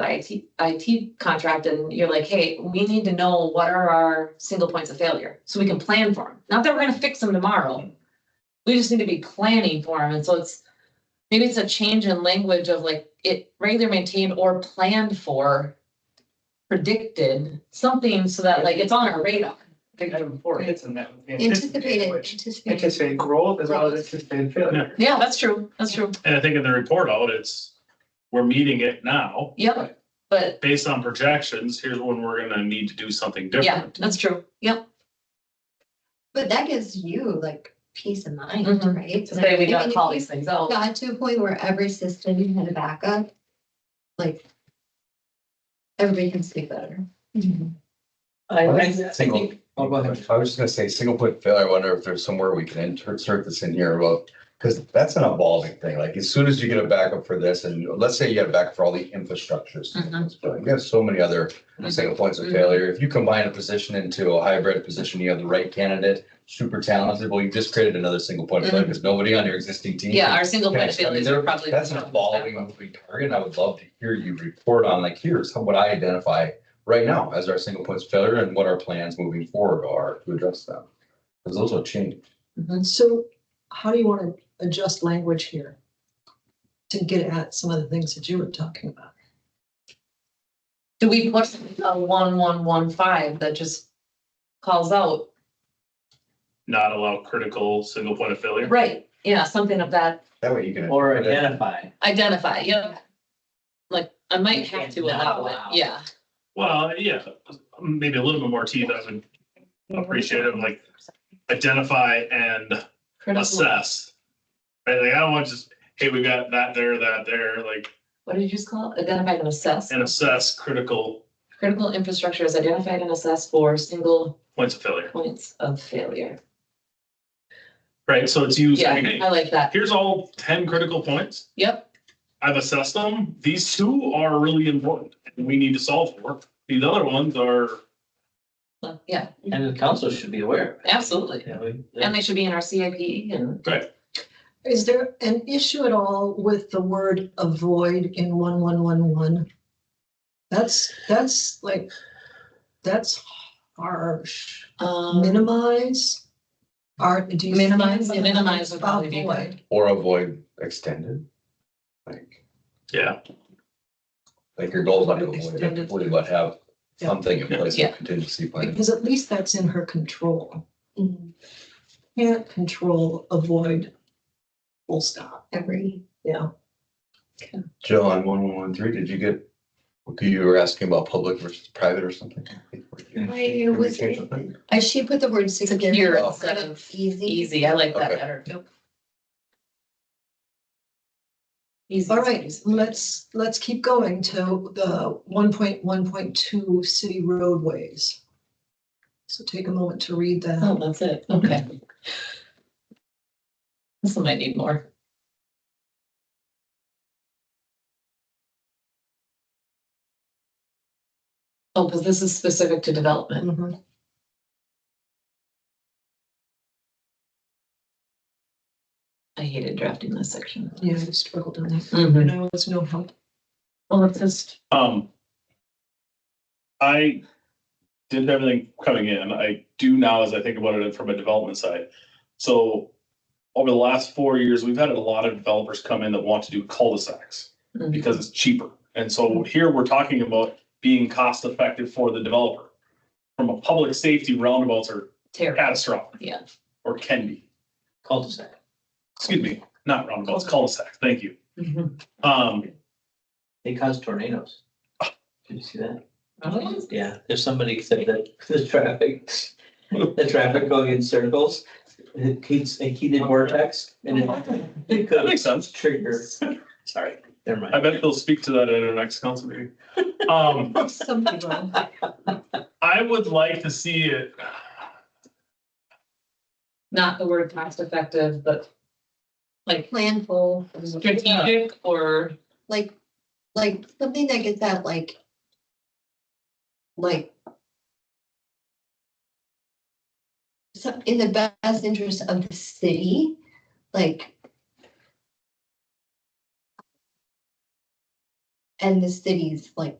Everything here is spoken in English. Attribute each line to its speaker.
Speaker 1: IT, IT contract and you're like, hey, we need to know what are our single points of failure, so we can plan for them. Not that we're gonna fix them tomorrow. We just need to be planning for them, and so it's, maybe it's a change in language of like, it regular maintained or planned for. Predicted, something so that like it's on our radar.
Speaker 2: think item four hits on that. with the
Speaker 3: Anticipated,
Speaker 2: which
Speaker 3: anticipated.
Speaker 2: Anticipated growth as well as anticipated failure.
Speaker 1: Yeah, that's true, that's true,
Speaker 4: And I think in the report out, it's, we're meeting it now,
Speaker 1: yep, but
Speaker 4: based on projections, here's when we're gonna need to do something
Speaker 1: yeah,
Speaker 4: different.
Speaker 1: that's true, yep,
Speaker 3: But that gives you like peace of mind,
Speaker 1: Mhm.
Speaker 3: right?
Speaker 1: to say we
Speaker 3: I mean,
Speaker 1: gotta
Speaker 3: if
Speaker 1: call
Speaker 3: you
Speaker 1: these things out.
Speaker 3: Got to a point where every system had a backup, like everybody can sleep better.
Speaker 1: Mm-hmm.
Speaker 5: I
Speaker 6: I
Speaker 5: think- I
Speaker 6: Single,
Speaker 5: think-
Speaker 6: I was just gonna say, single point failure, I wonder if there's somewhere we can insert this in here, well, because that's an evolving thing, like as soon as you get a backup for this, and let's say you have a backup for all the infrastructures.
Speaker 5: Mm-hmm.
Speaker 6: You have so many other single points of
Speaker 1: Mhm.
Speaker 6: failure, if you combine a position into a hybrid position, you have the right candidate, super talented, well, you just created another single point of
Speaker 5: Mm-hmm.
Speaker 6: failure, because nobody on your existing team.
Speaker 1: Yeah,
Speaker 6: can
Speaker 1: our single point of
Speaker 6: Yes, I mean,
Speaker 1: failures
Speaker 6: there-
Speaker 1: are probably.
Speaker 6: That's an evolving, moving target. and I would love to hear you report on, like, here's how- what I identify right now as our single points of failure and what our plans moving forward are to address them. Because those will change.
Speaker 1: Mhm.
Speaker 7: So how do you want to adjust language here? To get at some of the things that you were talking about?
Speaker 1: Do we put a one, one, one, five that just calls out?
Speaker 4: Not allow critical single point of failure.
Speaker 1: Right, yeah, something of that,
Speaker 6: That way you can.
Speaker 2: Or identify.
Speaker 1: identify, yeah. Like, I might have to
Speaker 2: Not
Speaker 1: allow it,
Speaker 2: allow.
Speaker 1: yeah.
Speaker 4: Well, yeah, maybe a little bit more teeth, I would appreciate it, like identify and
Speaker 1: Critical,
Speaker 4: assess. Right, like I don't want just, hey, we got that there, that there, like,
Speaker 1: what did you just call it? Identify and assess.
Speaker 4: and assess critical
Speaker 1: Critical infrastructure is identified and assessed for single
Speaker 4: points of failure,
Speaker 1: points of failure.
Speaker 4: right? So it's used,
Speaker 1: Yeah,
Speaker 4: hey,
Speaker 1: I like that,
Speaker 4: here's all ten critical points.
Speaker 1: yep,
Speaker 4: I've assessed them. These two are really important and we need to solve for. These other ones are,
Speaker 1: Well, yeah,
Speaker 2: And the council should be aware.
Speaker 1: absolutely. And they should be in our CIP and,
Speaker 7: Is there an issue at all with the word avoid in one, one, one, one? That's, that's like, that's harsh.
Speaker 1: um,
Speaker 7: Minimize? Are, do you? see
Speaker 1: Minimize,
Speaker 7: anything
Speaker 1: minimize would probably be
Speaker 7: about
Speaker 1: good.
Speaker 7: avoid?
Speaker 6: Or avoid extended. Like,
Speaker 4: yeah,
Speaker 6: like your goals not going to completely, but have something in place,
Speaker 1: Yeah.
Speaker 6: a contingency plan.
Speaker 7: Because at least that's in her control.
Speaker 3: Mhm.
Speaker 7: Can't control, avoid. Full stop.
Speaker 3: Every,
Speaker 7: Yeah.
Speaker 6: Jill, on one one one three, did you get, you were asking about public versus private or something?
Speaker 3: I was,
Speaker 6: Can we change something?
Speaker 3: I, she put the word
Speaker 1: Secure
Speaker 3: secure instead
Speaker 1: instead
Speaker 3: of easy.
Speaker 1: easy, I like that
Speaker 6: Okay.
Speaker 1: better. Easy.
Speaker 7: All right, let's, let's keep going to the one point, one point two city roadways. So take a moment to read
Speaker 1: Oh,
Speaker 7: that.
Speaker 1: that's it, okay. This one might need more. Oh, because this is specific to development.
Speaker 7: Mhm.
Speaker 1: I hated drafting this section.
Speaker 7: Yeah, I struggled on that.
Speaker 1: Mhm.
Speaker 7: No, it's no help.
Speaker 1: Well, it's just,
Speaker 4: um. I did everything coming in. I do now as I think about it from a development side. So over the last four years, we've had a lot of developers come in that want to do cul-de-sacs
Speaker 1: mm,
Speaker 4: because it's cheaper. And so here we're talking about being cost effective for the developer. From a public safety, roundabouts are
Speaker 1: terrible,
Speaker 4: catastrophic.
Speaker 1: Yeah.
Speaker 4: Or can be.
Speaker 2: Cul-de-sac.
Speaker 4: excuse me, not roundabouts, cul-de-sacs, thank you.
Speaker 1: Mhm.
Speaker 4: Um,
Speaker 2: They cause tornadoes. Did you see that?
Speaker 1: Really?
Speaker 2: Yeah, if somebody said that the traffic, the traffic going in circles, it heats, a heated vortex and it- it
Speaker 4: that
Speaker 2: could
Speaker 4: makes sense.
Speaker 2: trigger. Sorry, never
Speaker 4: I
Speaker 2: mind.
Speaker 4: bet they'll speak to that at our next council meeting. Um,
Speaker 7: Something wrong.
Speaker 4: I would like to see it,
Speaker 1: not the word cost effective, but like
Speaker 3: Planful,
Speaker 1: strategic or,
Speaker 3: like, like something that gets at like. Like. So in the best interest of the city, like. and the city's like